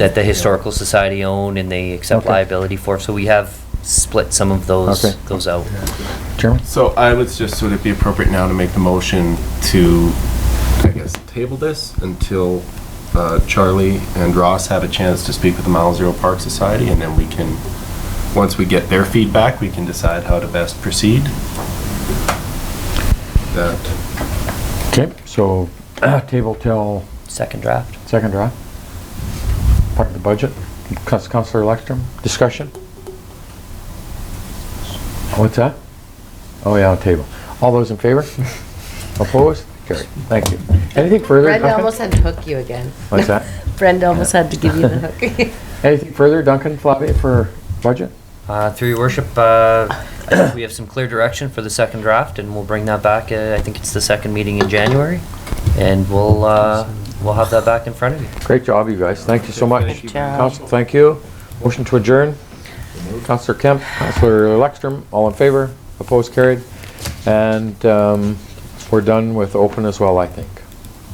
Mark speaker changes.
Speaker 1: that the Historical Society own and they accept
Speaker 2: Okay.
Speaker 1: liability for, so we have split some of those,
Speaker 2: Okay.
Speaker 1: those out.
Speaker 2: Chairman?
Speaker 3: So I would just, would it be appropriate now to make the motion to, I guess, table this until uh, Charlie and Ross have a chance to speak with the Mile Zero Park Society, and then we can, once we get their feedback, we can decide how to best proceed? That,
Speaker 2: Okay, so table till
Speaker 1: Second draft.
Speaker 2: second draft. Part of the budget. Cous- Counselor Lexstrom, discussion? What's that? Oh, yeah, table. All those in favor? Opposed? Carried. Thank you. Anything further?
Speaker 4: Brenda
Speaker 2: Duncan?
Speaker 4: almost had to hook you again.
Speaker 2: What's that?
Speaker 4: Brenda almost had to give you the hook.
Speaker 2: Anything further, Duncan, Flavia, for budget?
Speaker 1: Uh, Through your worship, uh, I think we have some clear direction for the second draft, and we'll bring that back, uh, I think it's the second meeting in January, and we'll, uh, we'll have that back in front of you.
Speaker 2: Great job, you guys. Thank you so much.
Speaker 3: Thank you.
Speaker 2: Council, thank you. Motion to adjourn. Councilor Kemp, Councilor Lexstrom, all in favor? Opposed, carried. And um, we're done with open as well, I think.